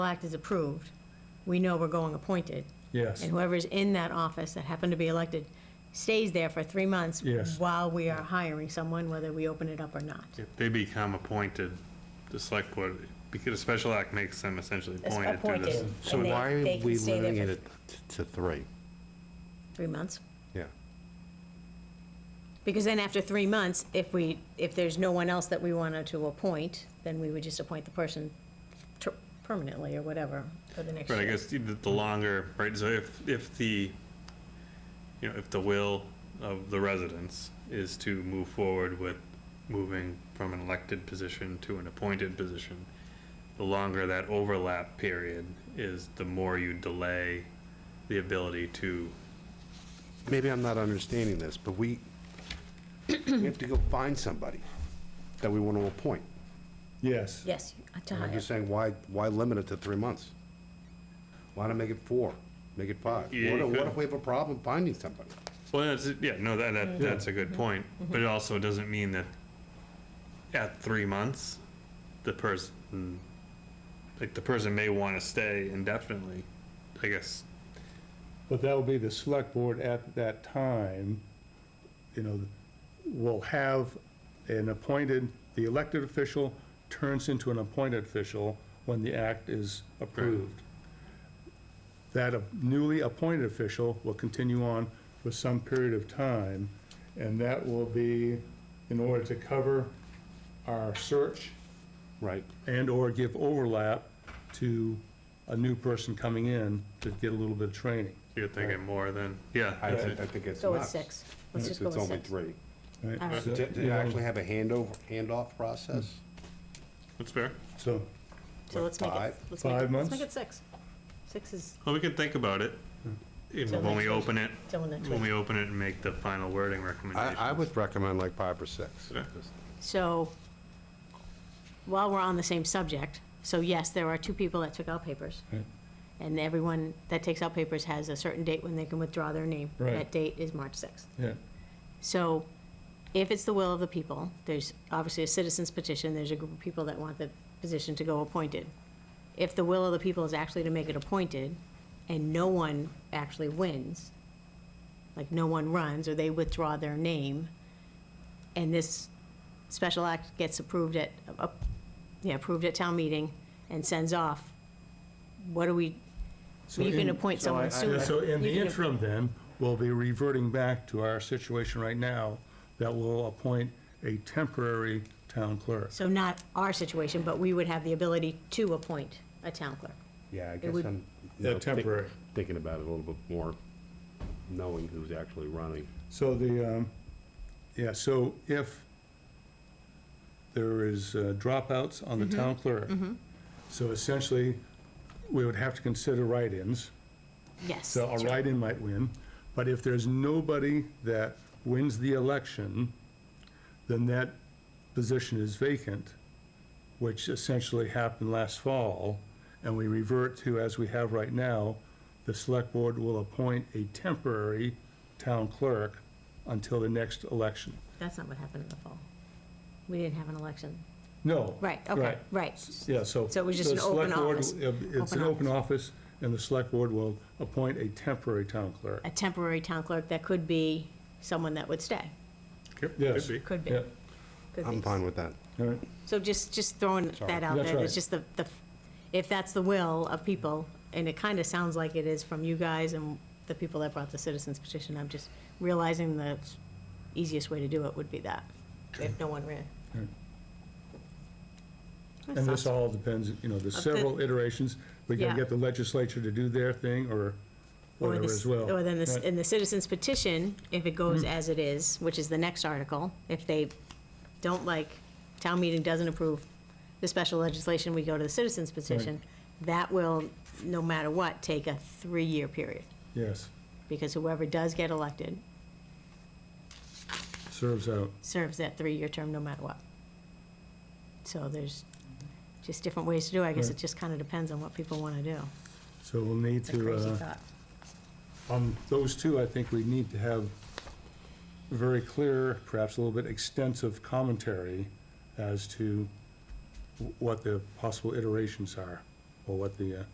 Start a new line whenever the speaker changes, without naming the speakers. act is approved, we know we're going appointed.
Yes,
And whoever's in that office that happened to be elected stays there for three months.
Yes.
While we are hiring someone, whether we open it up or not.
If they become appointed, the select board, because a special act makes them essentially
That's
appointed through this.
appointed.
So
And they-
why are
they can
we
stay there
limiting
for-
it to three?
Three months?
Yeah.
Because then after three months, if we, if there's no one else that we wanted to appoint, then we would just appoint the person ter- permanently or whatever for the next year.
But I guess the, the longer, right, so if, if the, you know, if the will of the residents is to move forward with moving from an elected position to an appointed position, the longer that overlap period is, the more you delay the ability to,
Maybe I'm not understanding this, but we, we have to go find somebody that we want to appoint.
yes.
Yes, to
And I'm
hire.
just saying, why, why limit it to three months? Why not make it four? Make it five? What
Yeah, you
if-
could.
what if we have a problem finding somebody?
well, that's, yeah, no, that, that, that's a good point,
Mm-hmm.
but it also doesn't mean that at three months, the person, like, the person may wanna stay indefinitely, I guess,
But that'll be the select board at that time, you know, will have an appointed, the elected official turns into an appointed official when the act is approved. That newly appointed official will continue on for some period of time, and that will be in order to cover our search
Right.
and/or give overlap to a new person coming in to get a little bit of training.
You're thinking more than, yeah.
I,
that's
I
it.
I think it's
Go with
nuts.
six. Let's
It's
just go
it's
with
only
six.
three.
right?
All right.
So,
To to
you know,
actually have a handover, handoff process?
That's fair.
So,
So let's make it,
Five-
let's make it,
five
let's
months?
make it six. Six is
Well, we can think about it, you know,
Mm. Till
when
next
we
week.
open it,
till next
when
week.
we open it and make the final wording
I,
recommendation.
I would recommend like five or six.
Okay.
So, while we're on the same subject, so yes, there are two people that took out papers.
Right.
And everyone that takes out papers has a certain date when they can withdraw their name.
Right.
That date is March 6th.
yeah,
So, if it's the will of the people, there's obviously a citizen's petition, there's a group of people that want the position to go appointed. If the will of the people is actually to make it appointed, and no one actually wins, like no one runs, or they withdraw their name, and this special act gets approved at, uh, yeah, approved at town meeting and sends off, what do we,
So
you
in-
can appoint
so I-
someone sooner.
so in
You
the
can-
interim then, we'll be reverting back to our situation right now that will appoint a temporary town clerk.
So not our situation, but we would have the ability to appoint a town clerk.
Yeah, I guess
would-
I'm. you
Yeah,
know, think-
temporary.
Thinking about it a little bit more, knowing who's actually running.
So the, um, yeah, so if there is uh, dropouts on the
Mm-hmm.
town clerk, so essentially, we would have to consider write-ins.
Yes.
So a
that's right.
write-in might win, but if there's nobody that wins the election, then that position is vacant, which essentially happened last fall, and we revert to, as we have right now, the select board will appoint a temporary town clerk until the next election.
That's not what happened in the fall. We didn't have an election.
No.
Right, okay, right.
Yeah, so.
So it was just
the
an open
select board-
office.
It's
Open
an open office, and the select board will appoint a temporary town clerk.
A temporary town clerk, that could be someone that would stay.
Could
Yes.
be.
Could be.
Yeah,
could
I'm
be.
fine with that.
all right.
So just, just throwing that out
That's
there,
right.
it's just the, the, if that's the will of people, and it kind of sounds like it is from you guys and the people that brought the citizens petition, I'm just realizing the easiest way to do it would be that, if no one ran.
Right.
That's
And this
awesome.
all depends, you know, there's
Of the-
several iterations. We
Yeah.
can get the legislature to do their thing or
Or
whatever
this-
as well.
Or then this,
Right. Hmm.
in the citizens petition, if it goes as it is, which is the next article, if they don't like, town meeting doesn't approve the special legislation, we go to the citizens petition, that will, no matter what, take a three-year period,
Yes,
because whoever does get elected
serves out.
serves that three-year term no matter what. So there's just different ways to do it, I guess it
Right.
just kind of depends on what people want to do.
So we'll need
It's a
to,
crazy
uh,
thought.
on those two, I think we need to have very clear, perhaps a little bit extensive commentary as to w- what the possible iterations are or what the, uh,